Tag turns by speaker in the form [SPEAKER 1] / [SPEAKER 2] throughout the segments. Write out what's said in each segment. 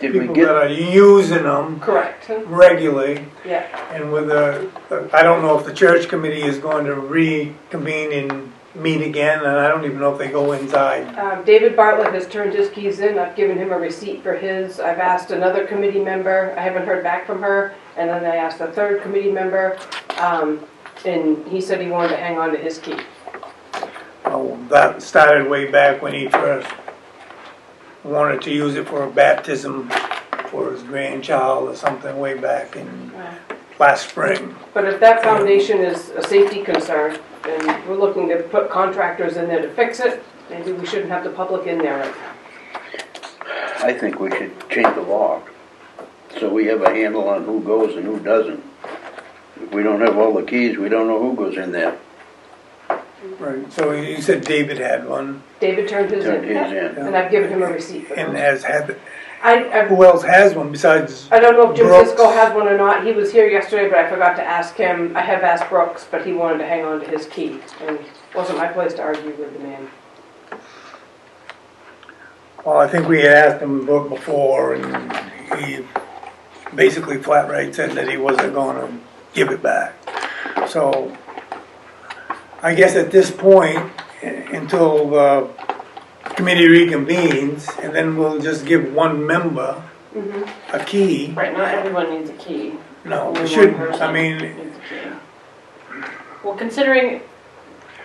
[SPEAKER 1] Did we
[SPEAKER 2] people that
[SPEAKER 1] get,
[SPEAKER 2] are using them
[SPEAKER 3] Correct,
[SPEAKER 2] regularly,
[SPEAKER 3] yeah.
[SPEAKER 2] and with a, I don't know if the church committee is going to reconvene and meet again, and I don't even know if they go inside.
[SPEAKER 3] Um, David Bartlett has turned his keys in, I've given him a receipt for his, I've asked another committee member, I haven't heard back from her, and then I asked a third committee member, um, and he said he wanted to hang on to his key.
[SPEAKER 2] Oh, That started way back when he first wanted to use it for a baptism for his grandchild or something way back in last spring.
[SPEAKER 3] But if that foundation is a safety concern, and we're looking to put contractors in there to fix it, maybe we shouldn't have the public in there right now.
[SPEAKER 1] I think we should change the law, so we have a handle on who goes and who doesn't. If we don't have all the keys, we don't know who goes in there,
[SPEAKER 2] Right. So you said David had one
[SPEAKER 3] David turned his
[SPEAKER 1] turn
[SPEAKER 3] in,
[SPEAKER 1] his in.
[SPEAKER 3] and I've given him a receipt for
[SPEAKER 2] and
[SPEAKER 3] it.
[SPEAKER 2] has had,
[SPEAKER 3] I, I've
[SPEAKER 2] who else has one besides,
[SPEAKER 3] I don't know if Jim
[SPEAKER 2] Brooks.
[SPEAKER 3] Cisco has one or not. He was here yesterday, but I forgot to ask him. I have asked Brooks, but he wanted to hang on to his key, and it wasn't my place to argue with the man.
[SPEAKER 2] well, I think we had asked him before and he basically flat right said that he wasn't gonna give it back. So I guess at this point, u- until the committee reconvenes, and then we'll just give one member a key.
[SPEAKER 3] Right, not everyone needs a key.
[SPEAKER 2] No,
[SPEAKER 3] Only
[SPEAKER 2] we
[SPEAKER 3] one
[SPEAKER 2] shouldn't, I
[SPEAKER 4] person.
[SPEAKER 2] mean,
[SPEAKER 4] Well, considering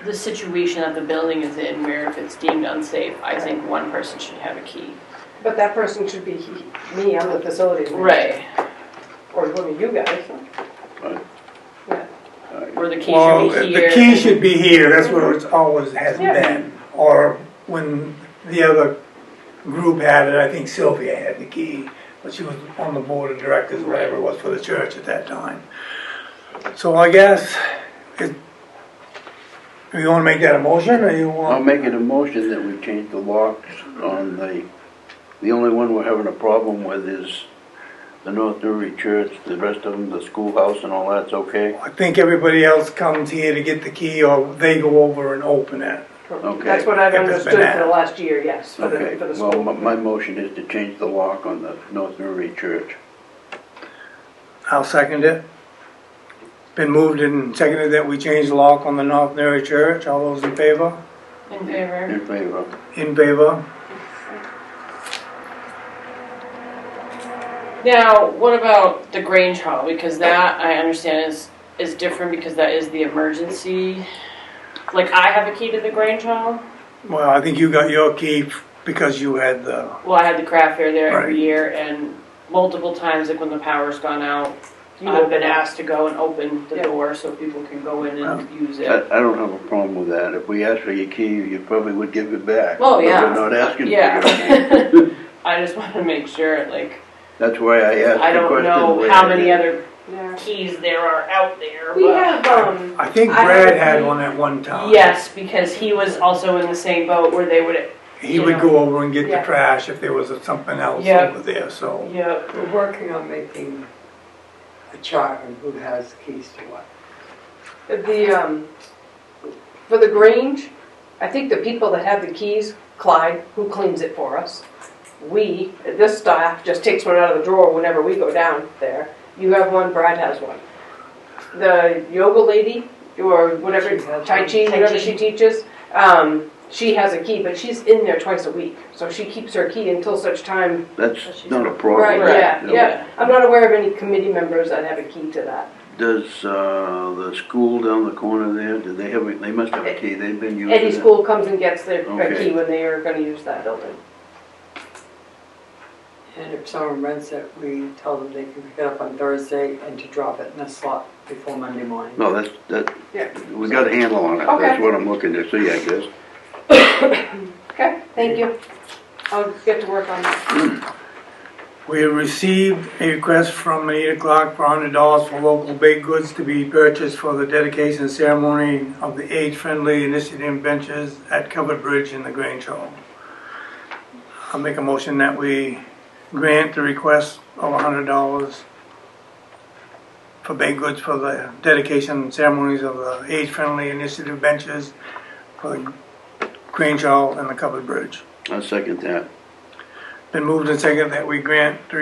[SPEAKER 4] the situation that the building is in, where if it's deemed unsafe, I think one person should have a key.
[SPEAKER 3] But that person should be he- me, I'm the facilities manager.
[SPEAKER 4] Right.
[SPEAKER 3] Or one of you guys.
[SPEAKER 1] Right.
[SPEAKER 3] Yeah.
[SPEAKER 4] Or the key
[SPEAKER 2] Well,
[SPEAKER 4] should be
[SPEAKER 2] the
[SPEAKER 4] here.
[SPEAKER 2] key should be here, that's where it's always has
[SPEAKER 3] Yeah.
[SPEAKER 2] been, or when the other group had it, I think Sylvia had the key, but she was on the board of directors, whatever it was for the church at that time. So I guess, it, you wanna make that a motion, or you
[SPEAKER 1] I'll
[SPEAKER 2] want,
[SPEAKER 1] make it a motion that we change the locks on the, the only one we're having a problem with is the North Newry Church, the rest of them, the schoolhouse and all that's okay.
[SPEAKER 2] I think everybody else comes here to get the key, or they go over and open it.
[SPEAKER 1] Okay.
[SPEAKER 3] That's what I've
[SPEAKER 2] If it's
[SPEAKER 3] understood
[SPEAKER 2] been
[SPEAKER 3] for the
[SPEAKER 2] added.
[SPEAKER 3] last year, yes, for the,
[SPEAKER 1] Okay,
[SPEAKER 3] for the
[SPEAKER 1] well, my,
[SPEAKER 3] school.
[SPEAKER 1] my motion is to change the lock on the North Newry Church.
[SPEAKER 2] I'll second it. Been moved and seconded that we change the lock on the North Newry Church, all those in favor?
[SPEAKER 4] In favor.
[SPEAKER 1] In favor?
[SPEAKER 2] In favor?
[SPEAKER 4] Now, what about the Grange Hall? Because that, I understand, is, is different because that is the emergency. Like, I have a key to the Grange Hall.
[SPEAKER 2] Well, I think you got your key f- because you had the,
[SPEAKER 4] Well, I had the craft fair there
[SPEAKER 2] Right.
[SPEAKER 4] every year, and multiple times, like when the power's gone out,
[SPEAKER 3] You
[SPEAKER 4] I've been
[SPEAKER 3] open up.
[SPEAKER 4] asked to go and open the
[SPEAKER 3] Yeah.
[SPEAKER 4] door so people can go in and use
[SPEAKER 1] I,
[SPEAKER 4] it.
[SPEAKER 1] I don't have a problem with that. If we asked for your key, you probably would give it back.
[SPEAKER 4] Oh,
[SPEAKER 1] But
[SPEAKER 4] yeah.
[SPEAKER 1] we're not asking for your key.
[SPEAKER 4] Yeah. I just want to make sure, like,
[SPEAKER 1] That's why I asked
[SPEAKER 4] I
[SPEAKER 1] the
[SPEAKER 4] don't
[SPEAKER 1] question. the
[SPEAKER 4] know
[SPEAKER 1] way
[SPEAKER 4] how
[SPEAKER 1] I
[SPEAKER 4] many
[SPEAKER 1] did.
[SPEAKER 4] other
[SPEAKER 3] Yeah.
[SPEAKER 4] keys there are out there,
[SPEAKER 3] We
[SPEAKER 4] but.
[SPEAKER 3] have, um,
[SPEAKER 2] I think
[SPEAKER 3] I have
[SPEAKER 2] Brad
[SPEAKER 3] a
[SPEAKER 2] had
[SPEAKER 3] key.
[SPEAKER 2] one at one time.
[SPEAKER 4] Yes, because he was also in the same boat where they would,
[SPEAKER 2] He would
[SPEAKER 4] Yeah.
[SPEAKER 2] go over and get
[SPEAKER 3] Yeah.
[SPEAKER 2] the trash if there was something else
[SPEAKER 4] Yeah.
[SPEAKER 2] over there, so.
[SPEAKER 4] yeah,
[SPEAKER 5] We're working on making a chart of who has keys to what.
[SPEAKER 3] The, um, for the Grange, I think the people that have the keys, Clyde, who cleans it for us, we, this staff, just takes one out of the drawer whenever we go down there. You have one, Brad has one. The yoga lady, or whatever,
[SPEAKER 5] She has
[SPEAKER 3] Tai
[SPEAKER 5] one.
[SPEAKER 3] Chi,
[SPEAKER 4] Tai
[SPEAKER 3] whatever
[SPEAKER 4] Chi.
[SPEAKER 3] she teaches, um, she has a key, but she's in there twice a week. So she keeps her key until such time
[SPEAKER 1] That's
[SPEAKER 4] she's
[SPEAKER 1] not a
[SPEAKER 4] not-
[SPEAKER 1] problem.
[SPEAKER 3] Right, yeah,
[SPEAKER 1] No.
[SPEAKER 3] yeah. I'm not aware of any committee members that have a key to that.
[SPEAKER 1] Does, uh, the school down the corner there, do they have, a- they must have
[SPEAKER 4] Eh,
[SPEAKER 1] a key, they've been using it?
[SPEAKER 3] Any school comes and gets their their
[SPEAKER 1] Okay.
[SPEAKER 3] key when they are gonna use that building.
[SPEAKER 5] And if someone rents it, we tell them they can pick it up on Thursday and to drop it in a slot before Monday morning.
[SPEAKER 1] No, that's,
[SPEAKER 3] Yeah.
[SPEAKER 1] that, we got a handle on it,
[SPEAKER 3] Okay.
[SPEAKER 1] that's what I'm looking to see, I guess.
[SPEAKER 3] Okay, thank you. I'll get to work on that.
[SPEAKER 2] We received a request from eight o'clock for hundred dollars for local baked goods to be purchased for the dedication ceremony of the age-friendly initiative benches at Covered Bridge in the Grange Hall. I'll make a motion that we grant the request of hundred dollars for baked goods for the dedication ceremonies of the age-friendly initiative benches for the Grange Hall and the Covered Bridge.
[SPEAKER 1] I'll second that.
[SPEAKER 2] Been moved and seconded that we grant the